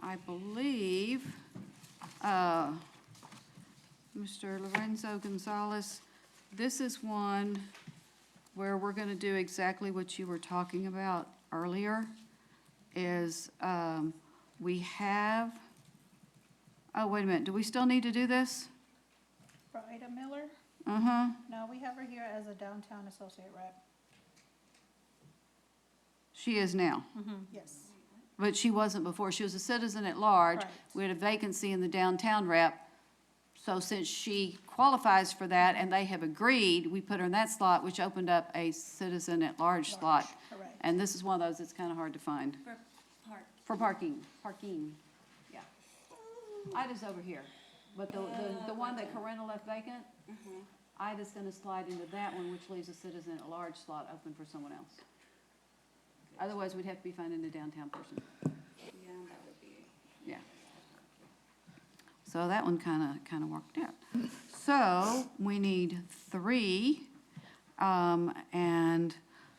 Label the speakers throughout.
Speaker 1: I believe, uh, Mr. Lorenzo Gonzalez, this is one where we're going to do exactly what you were talking about earlier, is um, we have, oh, wait a minute, do we still need to do this?
Speaker 2: For Ida Miller?
Speaker 1: Uh-huh.
Speaker 2: No, we have her here as a downtown associate rep.
Speaker 1: She is now,
Speaker 2: Yes.
Speaker 1: but she wasn't before. She was a citizen at large.
Speaker 2: Right.
Speaker 1: We had a vacancy in the downtown rep. So since she qualifies for that and they have agreed, we put her in that slot, which opened up a citizen at large slot.
Speaker 2: Correct.
Speaker 1: And this is one of those that's kind of hard to find.
Speaker 3: For park.
Speaker 1: For parking, parking, yeah.
Speaker 3: Mm-hmm.
Speaker 1: Ida's over here, but the, the, the one that Corinna left vacant,
Speaker 3: Mm-hmm.
Speaker 1: Ida's gonna slide into that one, which leaves a citizen at large slot open for someone else. Otherwise, we'd have to be finding a downtown person,
Speaker 3: Yeah, that would be.
Speaker 1: yeah. So that one kinda, kinda worked out. So, we need three, um, and,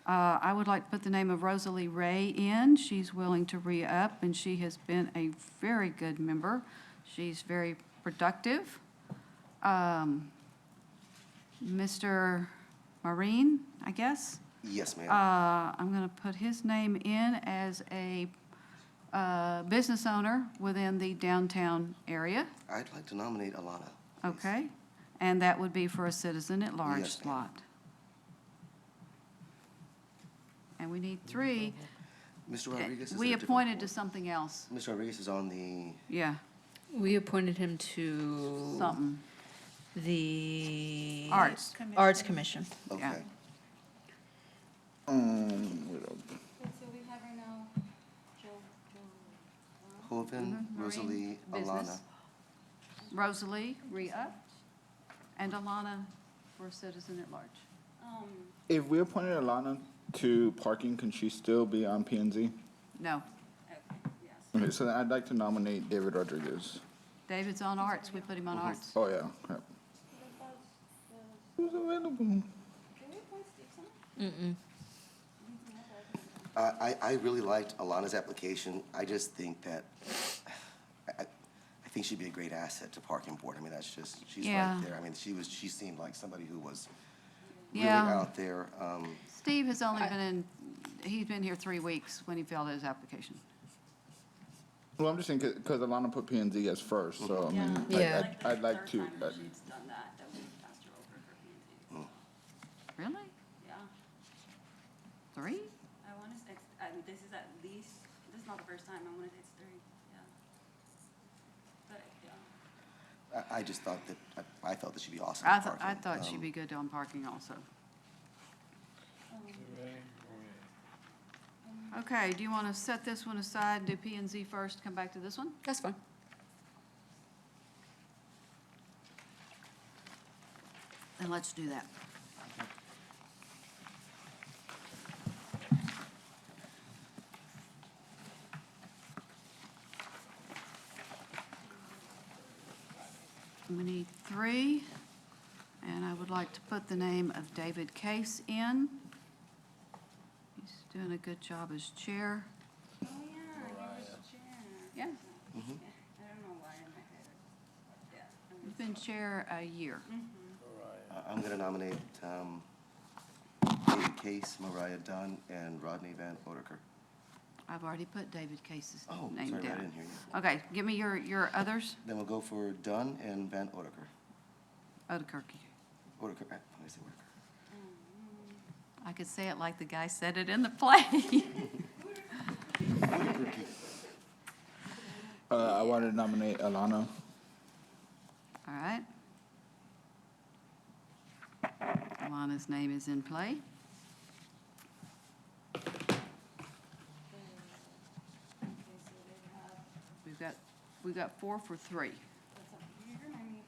Speaker 1: uh, I would like to put the name of Rosalie Ray in. She's willing to re-up, and she has been a very good member. She's very productive. Um, Mr. Marine, I guess?
Speaker 4: Yes, ma'am.
Speaker 1: Uh, I'm going to put his name in as a uh, business owner within the downtown area,
Speaker 4: I'd like to nominate Alana.
Speaker 1: okay? And that would be for a citizen at large
Speaker 4: Yes, ma'am.
Speaker 1: slot. And we need three.
Speaker 4: Mr. Rodriguez is
Speaker 1: We
Speaker 4: at a different
Speaker 1: appointed to
Speaker 4: board.
Speaker 1: something else,
Speaker 4: Mr. Rodriguez is on the,
Speaker 1: yeah,
Speaker 5: We appointed him to
Speaker 1: something,
Speaker 5: the.
Speaker 1: arts.
Speaker 5: Arts Commission.
Speaker 1: Yeah.
Speaker 4: okay.
Speaker 6: Um,
Speaker 3: And so we have her now, Jill, Jill.
Speaker 4: Hovind,
Speaker 1: Mm-hmm. Marine,
Speaker 4: Rosalie, Alana.
Speaker 1: business. Rosalie, re-up, and Alana for a citizen at large.
Speaker 3: Um,
Speaker 6: If we appointed Alana to parking, can she still be on P and Z?
Speaker 1: No,
Speaker 3: okay, yes.
Speaker 6: Okay, so then I'd like to nominate David Rodriguez.
Speaker 1: David's on arts, we put him on arts.
Speaker 6: Oh, yeah, crap. Who's available?
Speaker 3: Did we appoint Steve Simon?
Speaker 4: Uh, I, I really liked Alana's application. I just think that, I, I- I think she'd be a great asset to parking board. I mean, that's just, she's right
Speaker 1: Yeah.
Speaker 4: there. I mean, she was, she seemed like somebody who was really
Speaker 1: Yeah.
Speaker 4: out there. Um,
Speaker 1: Steve has only been in, he's been here three weeks when he filled out his application.
Speaker 6: Well, I'm just saying, because Alana put P and Z as first, so I mean,
Speaker 5: Yeah. Yeah.
Speaker 6: I- I'd, I'd like
Speaker 3: Third
Speaker 6: to,
Speaker 3: time that
Speaker 6: uh,
Speaker 3: She's done that, that we passed her over for P&Z.
Speaker 1: Really?
Speaker 3: Yeah,
Speaker 1: Three?
Speaker 3: I want to, I mean, this is at least, this is not the first time, I want to say it's three, yeah. But, yeah.
Speaker 4: I, I just thought that, I- I thought that she'd be awesome
Speaker 1: I
Speaker 4: at
Speaker 1: thought,
Speaker 4: parking.
Speaker 1: I thought she'd
Speaker 4: Um,
Speaker 1: be good on parking also. Okay, do you want to set this one aside, do P and Z first, come back to this one?
Speaker 5: That's fine.
Speaker 1: And let's do that. We need three, and I would like to put the name of David Case in. He's doing a good job as chair.
Speaker 3: Oh, yeah, you were Jen.
Speaker 1: Yeah.
Speaker 3: I don't know why in my head, it's- yeah. I'm-
Speaker 1: He's been chair a year.
Speaker 4: I- Uh, I'm gonna nominate, um, David Case, Mariah Dunn, and Rodney Van Oderker.
Speaker 1: I've already put David Case's
Speaker 4: Oh,
Speaker 1: name
Speaker 4: sorry, I
Speaker 1: down.
Speaker 4: didn't hear you.
Speaker 1: Okay, give me your, your others.
Speaker 4: Then we'll go for Dunn and Van Oderker.
Speaker 1: Odekirk.
Speaker 4: Oderker, eh, I say Oderker.
Speaker 1: I could say it like the guy said it in the play.
Speaker 6: uh, I wanted to nominate Alana.
Speaker 1: All right. Alana's name is in play. We've got, we've got four for three.
Speaker 3: That's not, you remind me,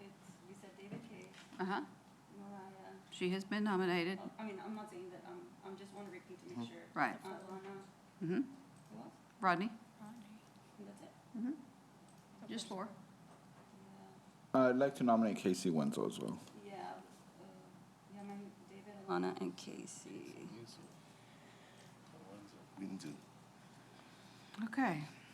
Speaker 3: it's, you said David Cage,
Speaker 1: Uh-huh.
Speaker 3: Mariah,
Speaker 1: She has been nominated.
Speaker 3: oh, I mean, I'm not saying that, I'm, I'm just want to repeat to make sure.
Speaker 1: Right.
Speaker 3: Uh, Lana,
Speaker 1: Mm-hmm.
Speaker 3: who else?
Speaker 1: Rodney?
Speaker 3: And that's it.
Speaker 1: Just four.
Speaker 6: I'd like to nominate Casey Wenzel as well.
Speaker 3: Yeah, uh, yeah, my, David, Lana, and Casey.
Speaker 4: We can do
Speaker 1: Okay.